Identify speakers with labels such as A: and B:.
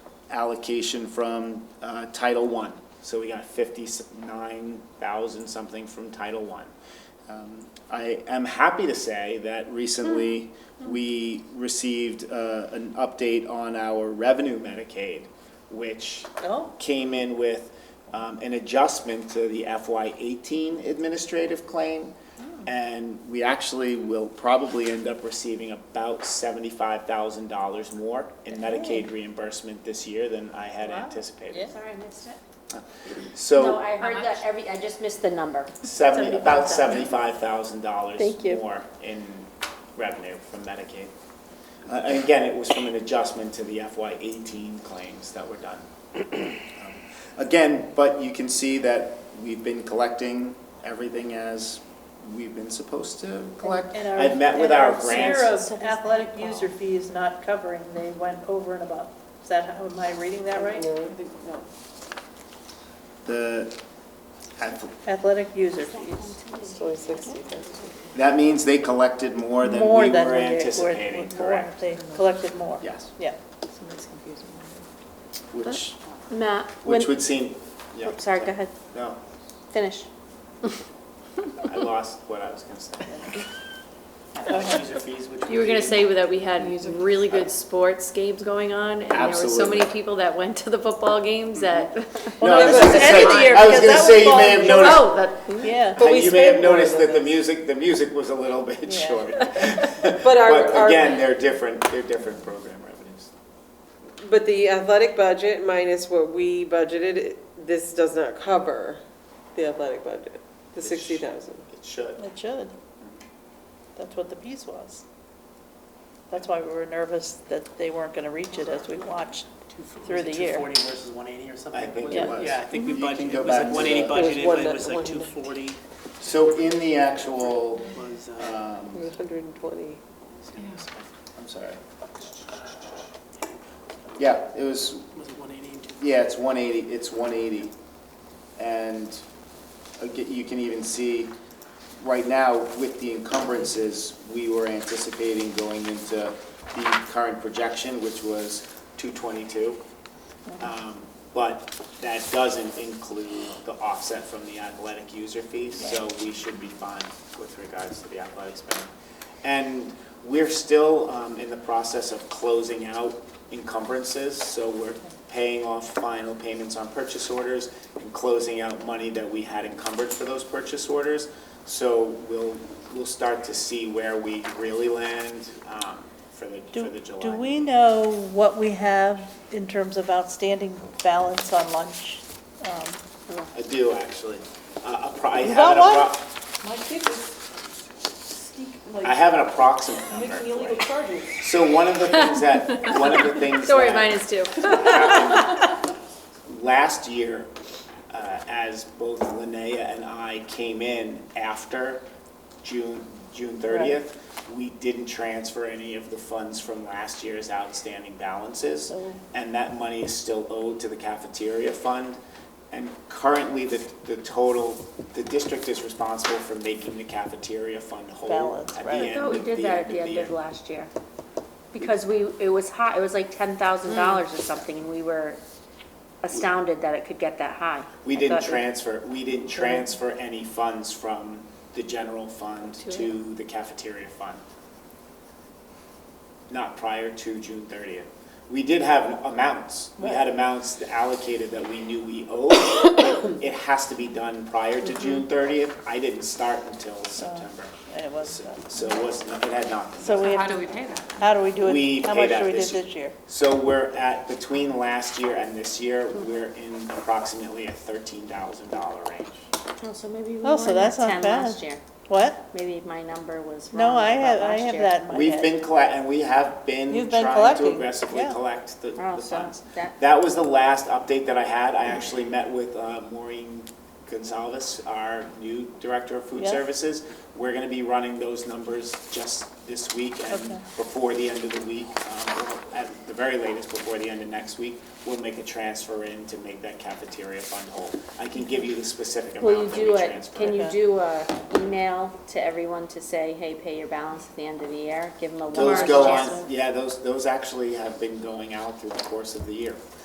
A: allocation from uh, Title I. So we got 59,000 something from Title I. Um, I am happy to say that recently, we received uh, an update on our revenue Medicaid, which
B: Oh.
A: came in with um, an adjustment to the FY eighteen administrative claim. And we actually will probably end up receiving about seventy-five thousand dollars more in Medicaid reimbursement this year than I had
B: Wow.
A: anticipated.
B: Yeah.
C: Sorry, I missed it. No,
A: So
C: I heard that every, I just missed the number.
A: seventy, about
C: $75,000.
A: seventy-five thousand dollars
B: Thank you.
A: more in revenue from Medicaid. Uh, And again, it was from an adjustment to the FY eighteen claims that were done. Um, Again, but you can see that we've been collecting everything as we've been supposed to collect.
B: And our-
A: I've met with
B: and
A: our grants.
B: share of athletic user fees not covering, they went over and above. Is that, how am I reading that right?
A: The, ath-
B: Athletic user fees.
A: that means they collected more than
B: More
A: we
B: than
A: were
B: we did,
A: anticipating,
B: more-
A: correct?
B: They collected more.
A: Yes,
B: Yeah.
A: which,
D: Matt, when,
A: which would seem, yeah.
D: oh, sorry, go ahead,
A: No,
D: finish.
A: I lost what I was gonna say. User fees, which
D: You were
A: would
D: gonna
A: be-
D: say that we had really good sports games going on, and there were so
A: Absolutely. Mm-hmm.
D: many people that went to the football games that,
A: No, I
B: Well,
A: was
B: that
A: gonna
B: was end
A: say,
B: of the year,
A: I was
B: because
A: gonna
B: that
A: say
B: was
A: you may
B: fall.
A: have noticed.
D: oh, that,
B: Yeah.
E: But we
A: You may have
E: spent more
A: noticed
E: than
A: that the
E: that.
A: music, the music was a little bit
B: Yeah.
A: short.
E: But our,
A: But again,
E: our,
A: they're different, they're different program revenues.
E: but the athletic budget minus what we budgeted, this does not cover the athletic budget, the
A: It sh-
E: sixty thousand.
A: It should.
B: It should. That's what the piece was. That's why we were nervous that they weren't going to reach it as we watched through the year.
F: 240 versus 180 or something?
A: I think
F: Was
A: it
B: Yeah.
A: was.
F: Yeah, I think we
A: You can
F: budgeted,
A: go
F: it was
A: back
F: like
A: to
F: 180
A: the-
F: budgeted,
E: It was
F: but it was like
E: 190.
F: 240
A: So in the actual,
F: was, uh,
A: um,
E: Hundred and twenty.
A: I'm sorry. Yeah, it was,
F: was it 180 and 240?
A: yeah, it's 180, it's 180. And aga- you can even see, right now, with the encumbrances, we were anticipating going into the current projection, which was 222. Um, But that doesn't include the offset from the athletic user fees, so we should be fine with regards to the athletic spending. And we're still um, in the process of closing out encumbrances, so we're paying off final payments on purchase orders and closing out money that we had encumbered for those purchase orders. So we'll, we'll start to see where we really land um, for the, for the
B: Do,
A: July.
B: do we know what we have in terms of outstanding balance on lunch? Um,
A: I do, actually. Uh, a pro- I
B: You
A: have
B: got
A: an appro-
B: one?
G: My kids sneak,
A: I
G: like,
A: have an approximate number.
G: making illegal
A: for you.
G: charges.
A: So one of the things that, one of the things
D: don't worry,
A: that
D: mine is too.
A: happened Last year, uh, as both Linnea and I came in after June, June thirtieth, we didn't transfer any of the funds from last year's outstanding balances.
B: So-
A: And that money is still owed to the cafeteria fund. And currently, the, the total, the district is responsible for making the cafeteria fund whole at
B: Balance,
A: the end of the year.
B: right. I
C: I thought we did that at the end of last year. Because we, it was high, it was like ten thousand
D: Mm.
C: dollars or something, and we were astounded that it could get that high.
A: We
C: I
A: didn't
C: thought it-
A: transfer, we didn't transfer any funds from the general fund to the cafeteria fund. Not prior to June thirtieth. We did have amounts, we had amounts allocated that we knew we owed. but It has to be done prior to June thirtieth. I didn't start until September.
B: And it was,
A: So so it was, not- it had not been.
B: so we
G: How
B: have,
G: do we
B: to-
G: pay that?
B: how do we do
A: We
B: it? How
A: paid
B: much
A: out
B: do we do
A: this year.
B: this year?
A: So we're at, between last year and this year, we're in approximately a thirteen thousand dollar range.
C: Oh, so maybe we
B: Oh, so
C: were at
B: that's not
C: ten
B: bad.
C: last year.
B: What?
C: Maybe my number was wrong.
B: No, I
C: about
B: have, I
C: last
B: have
C: year.
B: that in my head.
A: We've been collect, and we have been
B: You've been
A: trying to
B: collecting,
A: aggressively
B: yeah.
A: collect the
C: Oh,
A: the
C: so
A: funds.
C: that-
A: That was the last update that I had. I actually met with uh, Maureen Gonzalez, our new Director of Food
B: Yes.
A: Services. We're gonna be running those numbers just this week and
B: Okay.
A: before the end of the week, um, we'll- at the very latest, before the end of next week, we'll make a transfer in to make that cafeteria fund whole. I can give you the specific
C: Will you
A: amount that
C: do
A: we
C: a,
A: transferred.
C: can you
B: Okay.
C: do a email to everyone to say, hey, pay your balance at the end of the year? Give them a one.
A: Those
C: last
A: go
C: chance.
A: on, yeah, those, those actually have been going out through the course of the year.